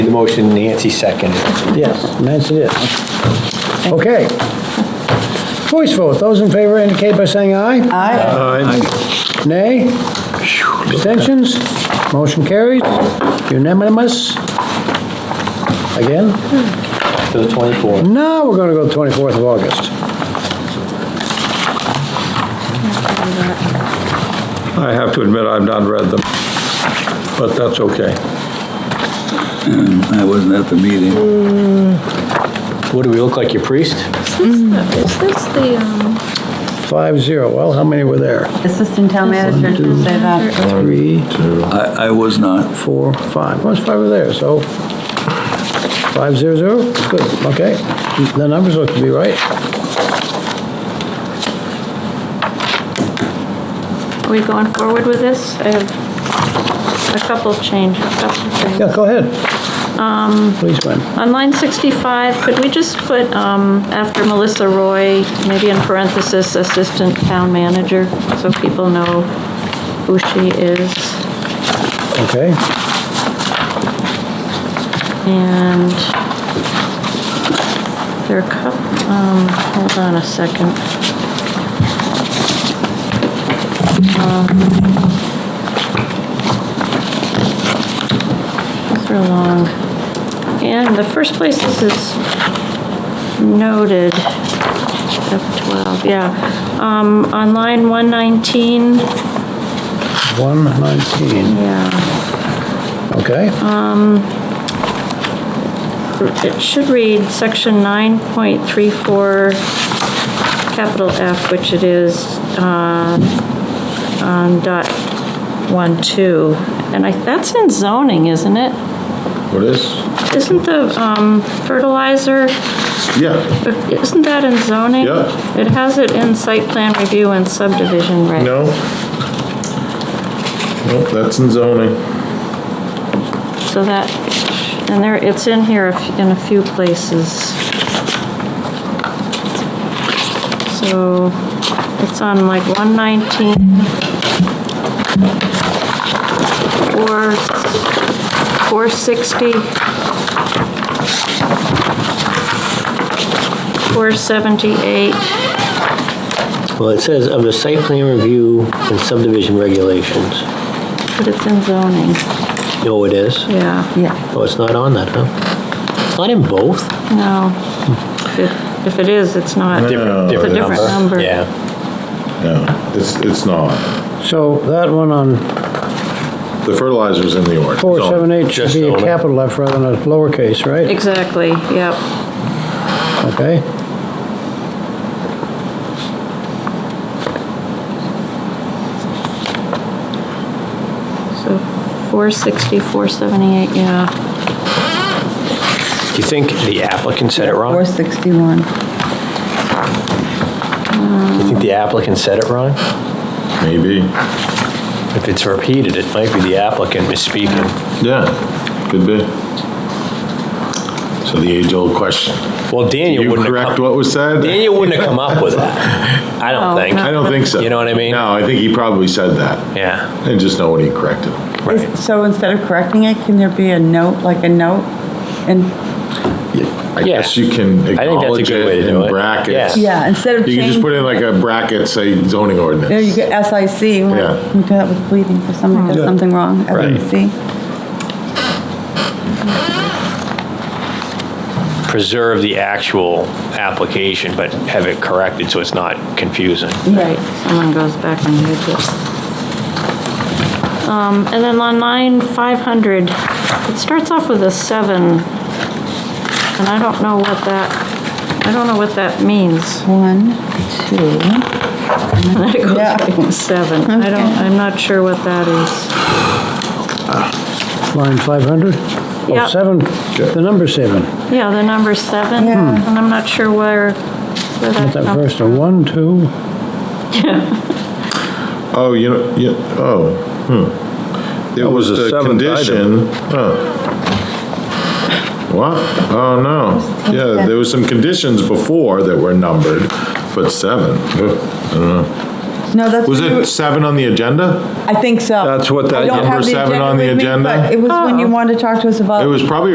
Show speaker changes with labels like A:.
A: motion, Nancy seconded.
B: Yes, Nancy is. Okay. Voice vote, those in favor indicate by saying aye.
C: Aye.
B: Nay? Abstentions? Motion carries. Unanimous? Again?
A: To the 24th.
B: Now, we're gonna go the 24th of August.
D: I have to admit, I've not read them, but that's okay.
E: I wasn't at the meeting.
A: What, do we look like your priest?
F: Is this the- is this the, um,
B: Five zero, well, how many were there?
C: Assistant Town Manager did say that.
B: Three,
E: I, I was not.
B: four, five, most five were there, so five zero zero, good, okay. The numbers look to be right.
F: are we going forward with this? I have a couple of changes, a couple of things.
B: Yeah, go ahead. Um. Please, ma'am.
F: On line 65, could we just put, um, after Melissa Roy, maybe in parenthesis, Assistant Town Manager, so people know who she is?
B: Okay,
F: And there are a couple, um, hold on a second. Um, These are long. And the first place this is noted, F12, yeah. Um, on line 119,
B: one nineteen,
F: yeah.
B: okay?
F: It should read section 9.34, capital F, which it is, uh, on dot one two, And I, that's in zoning, isn't it?
D: What is?
F: Isn't the um, fertilizer,
D: Yeah.
F: isn't that in zoning?
D: Yeah.
F: It has it in site plan review and subdivision, right?
D: No? No, that's in zoning.
F: So that, and there, it's in here a f- in a few places. So it's on like 119. Four, 460. 478.
A: Well, it says of the site plan review and subdivision regulations.
F: But it's in zoning,
A: No, it is.
F: yeah,
C: Yeah.
A: Oh, it's not on that, huh? It's not in both?
F: no. If it- If it is, it's not.
D: Different-
F: It's a
D: different
F: different number.
A: Yeah.
D: No, it's, it's not.
B: So that one on
D: The fertilizer's in the order.
B: four seven eight should
A: Just
B: be a
A: on it.
B: capital F rather than a lowercase, right?
F: Exactly, yep.
B: Okay?
F: So 460, 478, yeah.
A: Do you think the applicant said it wrong?
C: 461.
A: Do you think the applicant said it wrong?
D: Maybe.
A: If it's repeated, it might be the applicant misspeaking.
D: Yeah, could be. So the age-old question.
A: Well, Daniel
D: You
A: wouldn't have come...
D: correct what was said?
A: Daniel wouldn't have come up with that. I don't
F: Oh,
A: think.
F: no.
D: I don't think so.
A: You know what I mean?
D: No, I think he probably said that.
A: Yeah,
D: And just know what he corrected.
A: right.
C: So instead of correcting it, can there be a note, like a note? And,
D: I
A: Yeah.
D: guess you can
A: I think that's a
D: acknowledge
A: good way
D: it
A: to do
D: in
A: it.
D: brackets.
A: Yeah.
C: yeah, instead of
D: You can just
C: change,
D: put in like a bracket, say zoning
C: there you
D: ordinance.
C: get SIC, you
D: Yeah.
C: want- you do that with bleeding, if somebody does something wrong, SIC.
A: Preserve the actual application, but have it corrected so it's not confusing.
F: Right, someone goes back and reads it. Um, And then on line 500, it starts off with a 7, and I don't know what that, I don't know what that means.
C: One, two,
F: And then it goes
C: Yeah.
F: back to 7. I don't,
C: Okay.
F: I'm not sure what that is.
B: Line five hundred?
F: Yeah.
B: Oh, seven, the number seven,
F: Yeah, the number 7,
C: Yeah.
F: and I'm not sure where, where that
B: not that
F: comes
B: first
F: from.
B: one, one, two,
D: Oh, you know, you, oh, hmm. It was
G: was the
D: the
G: seventh item.
D: condition. huh. What? Oh, no. Yeah, there was some conditions before that were numbered, but seven. ugh, I don't know.
C: no, that's.
D: Was
C: when you-
D: it seven on the agenda?
C: I think so.
G: That's what
C: I
G: that
C: don't have
D: number
C: the
D: seven on the
C: with me,
D: agenda?
C: Oh. but It was when you wanted to talk to us about.
D: It was probably